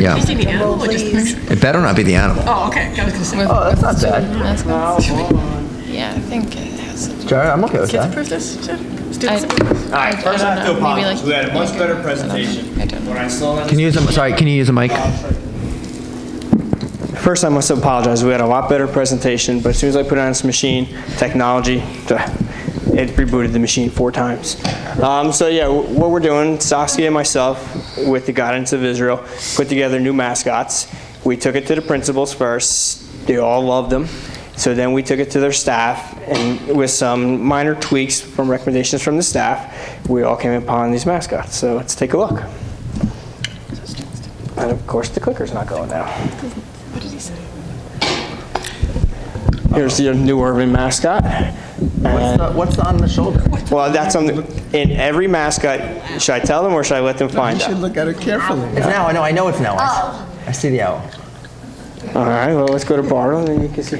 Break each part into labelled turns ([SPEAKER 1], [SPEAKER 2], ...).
[SPEAKER 1] Yeah.
[SPEAKER 2] Is it the animal or just the picture?
[SPEAKER 1] It better not be the animal.
[SPEAKER 2] Oh, okay. I was gonna say.
[SPEAKER 3] Oh, that's not bad.
[SPEAKER 4] That's good. Yeah, I think it has. to do-
[SPEAKER 3] Jared, I'm okay with
[SPEAKER 2] Kids
[SPEAKER 3] that.
[SPEAKER 2] approve this? Sure. Students
[SPEAKER 4] I-
[SPEAKER 2] approve this?
[SPEAKER 4] I- I don't
[SPEAKER 5] First, I have to
[SPEAKER 4] know, maybe
[SPEAKER 5] apologize.
[SPEAKER 4] like-
[SPEAKER 5] We had a much
[SPEAKER 4] like,
[SPEAKER 5] better
[SPEAKER 4] I don't know. I don't
[SPEAKER 5] presentation.
[SPEAKER 4] know.
[SPEAKER 5] When I saw that-
[SPEAKER 3] Can you use a, sorry, can you use a mic?
[SPEAKER 5] First, I must apologize. We had a lot better presentation, but as soon as I put it on this machine, technology, duh, it rebooted the machine four times. Um, so yeah, wh- what we're doing, Saskia and myself, with the guidance of Israel, put together new mascots. We took it to the principals first. They all loved them. So then we took it to their staff, and with some minor tweaks from recommendations from the staff, we all came upon these mascots. So let's take a look. And of course, the clicker's not going now. Here's your new urban mascot.
[SPEAKER 3] What's
[SPEAKER 5] And-
[SPEAKER 3] the- What's on the shoulder?
[SPEAKER 5] well, that's on the, in every mascot. Should I tell them or should I let them find out?
[SPEAKER 6] look at it carefully.
[SPEAKER 3] It's now, I know, I know it's now. I s- I see the owl.
[SPEAKER 5] All right. Well, let's go to Bartle, and then you can see.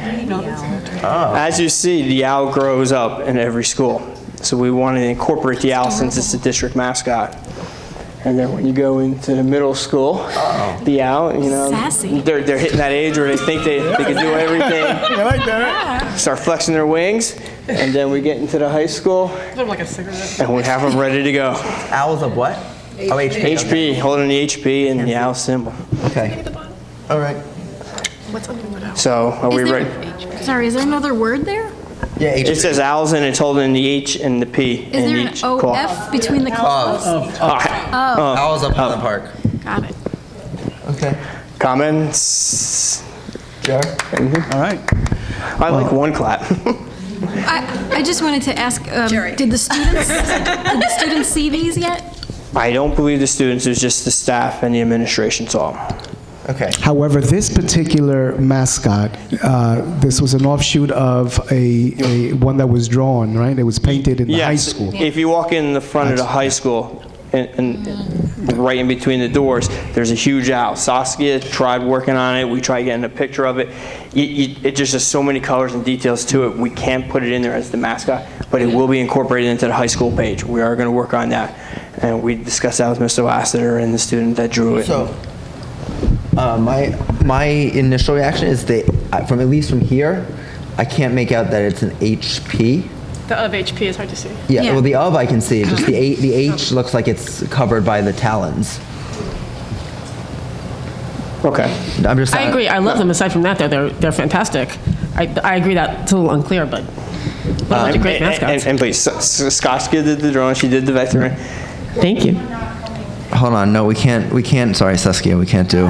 [SPEAKER 6] Oh.
[SPEAKER 5] As you see, the owl grows up in every school. So we wanted to incorporate the owl since it's the district mascot. And then when you go into the middle school, the owl, you know,
[SPEAKER 7] Sassy.
[SPEAKER 5] they're they're hitting that age where they think they, they can do everything.
[SPEAKER 6] I like that.
[SPEAKER 5] start flexing their wings, and then we get into the high school,
[SPEAKER 2] Sort of like a cigarette.
[SPEAKER 5] and we have them ready to go.
[SPEAKER 3] Owls of what? Oh, HP. okay.
[SPEAKER 5] HP, holding the HP and the owl symbol.
[SPEAKER 3] Okay. All right.
[SPEAKER 5] So are we
[SPEAKER 7] Is there-
[SPEAKER 5] ready?
[SPEAKER 7] Sorry, is there another word there?
[SPEAKER 3] Yeah,
[SPEAKER 5] It
[SPEAKER 3] HP.
[SPEAKER 5] says owls, and it's holding the H and the P
[SPEAKER 7] Is there
[SPEAKER 5] in
[SPEAKER 7] an
[SPEAKER 5] each claw.
[SPEAKER 7] OF between the claws?
[SPEAKER 5] Ah,
[SPEAKER 3] Owls up in the park.
[SPEAKER 7] Got it.
[SPEAKER 3] Okay.
[SPEAKER 5] Comments?
[SPEAKER 3] Jared?
[SPEAKER 6] All right.
[SPEAKER 5] I like one clap.
[SPEAKER 7] I, I just wanted to ask, um, did the students, did the students see these yet?
[SPEAKER 5] I don't believe the students, it was just the staff and the administration saw 'em.
[SPEAKER 3] Okay.
[SPEAKER 6] However, this particular mascot, uh, this was an offshoot of a, a one that was drawn, right? It was painted in the high
[SPEAKER 5] Yes,
[SPEAKER 6] school.
[SPEAKER 5] If you walk in the front of the high school, and, and right in between the doors, there's a huge owl. Saskia tried working on it. We tried getting a picture of it. You, you, it just has so many colors and details to it. We can't put it in there as the mascot, but it will be incorporated into the high school page. We are going to work on that, and we discussed that with Mr. Lassiter and the student that drew it.
[SPEAKER 3] So, uh, my my initial reaction is that uh, from at least from here, I can't make out that it's an HP.
[SPEAKER 2] The of HP is hard to see. Oh.
[SPEAKER 3] Yeah.
[SPEAKER 7] Yeah.
[SPEAKER 3] Well, the of I can see. Just the a, the H looks like it's covered by the talons.
[SPEAKER 5] okay.
[SPEAKER 3] I'm just.
[SPEAKER 2] I agree. I love them. Aside from that, though, they're they're fantastic. I, I agree that it's a little unclear, but they're great
[SPEAKER 5] Um, And, and,
[SPEAKER 2] mascots.
[SPEAKER 5] and please, S- S- Saskia did the drawing. She did the vectoring.
[SPEAKER 2] Thank you.
[SPEAKER 3] Hold on. No, we can't. We can't. Sorry, Saskia. We can't do.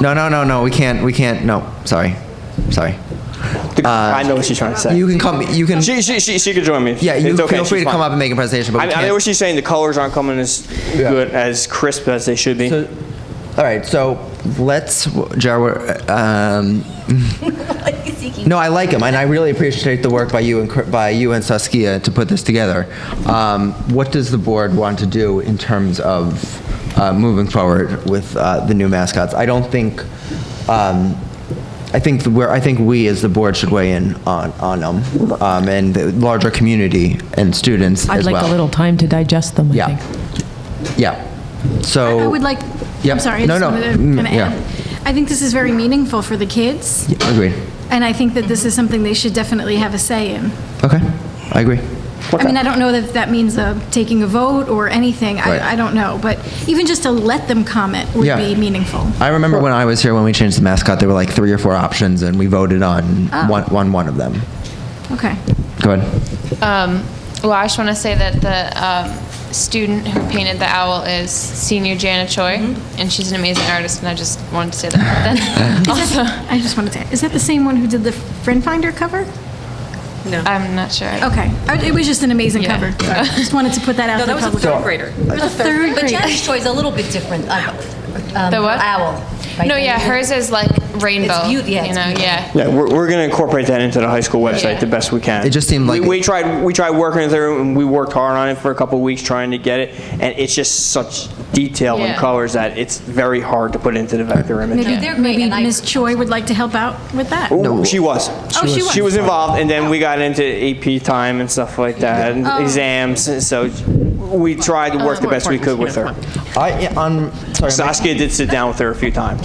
[SPEAKER 3] No, no, no, no. We can't. We can't. No. Sorry. Sorry.
[SPEAKER 5] I know what she's trying to say.
[SPEAKER 3] Uh, You can come. You can.
[SPEAKER 5] she, she, she, she could join me.
[SPEAKER 3] Yeah. You
[SPEAKER 5] It's okay,
[SPEAKER 3] feel free
[SPEAKER 5] she's
[SPEAKER 3] to come
[SPEAKER 5] fine.
[SPEAKER 3] up and make a presentation, but we
[SPEAKER 5] I, I know
[SPEAKER 3] can't-
[SPEAKER 5] what she's saying. The colors aren't coming as
[SPEAKER 3] Yeah.
[SPEAKER 5] good, as crisp as they should be.
[SPEAKER 3] So, all right, so let's, Jar, we're, um, no, I like him, and I really appreciate the work by you and, Cr- by you and Saskia to put this together. Um, what does the board want to do in terms of uh, moving forward with uh, the new mascots? I don't think, um, I think where, I think we as the board should weigh in on, on them, um, and the larger community and students
[SPEAKER 8] I'd
[SPEAKER 3] as
[SPEAKER 8] like a
[SPEAKER 3] well.
[SPEAKER 8] little time to digest them, I
[SPEAKER 3] Yeah.
[SPEAKER 8] think.
[SPEAKER 3] Yeah, so.
[SPEAKER 7] I would like,
[SPEAKER 3] Yep.
[SPEAKER 7] I'm sorry, I
[SPEAKER 3] Oh. No,
[SPEAKER 7] just
[SPEAKER 3] no.
[SPEAKER 7] wanted to
[SPEAKER 3] Mm,
[SPEAKER 7] kind of
[SPEAKER 3] yeah.
[SPEAKER 7] add. I think this is very meaningful for the kids,
[SPEAKER 3] Agreed.
[SPEAKER 7] and I think that this is something they should definitely have a say in.
[SPEAKER 3] Okay, I agree.
[SPEAKER 7] I mean, I don't know that that means uh, taking a vote or anything,
[SPEAKER 3] Right.
[SPEAKER 7] I, I don't know, but even just to let them comment
[SPEAKER 3] Yeah.
[SPEAKER 7] would be meaningful.
[SPEAKER 3] I remember when I was here, when we changed the mascot, there were like three or four options, and we voted on
[SPEAKER 7] Ah.
[SPEAKER 3] one, on one of them.
[SPEAKER 7] Okay.
[SPEAKER 3] Go ahead.
[SPEAKER 4] Um, well, I just want to say that the um, student who painted the owl is senior Jana Choi,
[SPEAKER 3] Mm-hmm.
[SPEAKER 4] and she's an amazing artist. And I just wanted to say that. But then also,
[SPEAKER 7] I just wanted to, is that the same one who did the Friend Finder cover?
[SPEAKER 4] I'm not sure.
[SPEAKER 9] Oh,
[SPEAKER 7] Okay, I- it was just an amazing
[SPEAKER 4] Yeah.
[SPEAKER 7] cover. Just wanted to put that out
[SPEAKER 9] No,
[SPEAKER 7] to
[SPEAKER 9] that
[SPEAKER 7] the
[SPEAKER 9] was a
[SPEAKER 7] public.
[SPEAKER 9] third grader. It was a
[SPEAKER 7] third
[SPEAKER 9] But
[SPEAKER 7] grader.
[SPEAKER 9] Janice Troy's a little bit different. um, um,
[SPEAKER 4] The what?
[SPEAKER 9] Owl. right?
[SPEAKER 4] No, yeah, hers is like rainbow.
[SPEAKER 9] beaut- yeah,
[SPEAKER 4] you
[SPEAKER 9] it's
[SPEAKER 4] know,
[SPEAKER 9] beautiful.
[SPEAKER 4] yeah.
[SPEAKER 5] yeah, we're, we're going to incorporate that into the high school website
[SPEAKER 4] Yeah.
[SPEAKER 5] the best we can.
[SPEAKER 3] It just seemed like-
[SPEAKER 5] we, we tried we tried working through it, and we worked hard on it for a couple of weeks trying to get it, and it's just such detail and
[SPEAKER 4] Yeah.
[SPEAKER 5] colors that it's very hard to put into the vector image.
[SPEAKER 7] Maybe,
[SPEAKER 9] They're great,
[SPEAKER 7] maybe
[SPEAKER 9] and I-
[SPEAKER 7] Ms. Choi would like to help out with that.
[SPEAKER 5] Ooh, she was.
[SPEAKER 7] Oh, she was.
[SPEAKER 5] She
[SPEAKER 7] Oh.
[SPEAKER 5] was involved, and then we got into AP time and stuff like that, and exams. and So we tried to work the best we could with her.
[SPEAKER 3] I, on, sorry, my-
[SPEAKER 5] Saskia did sit down with her a few times.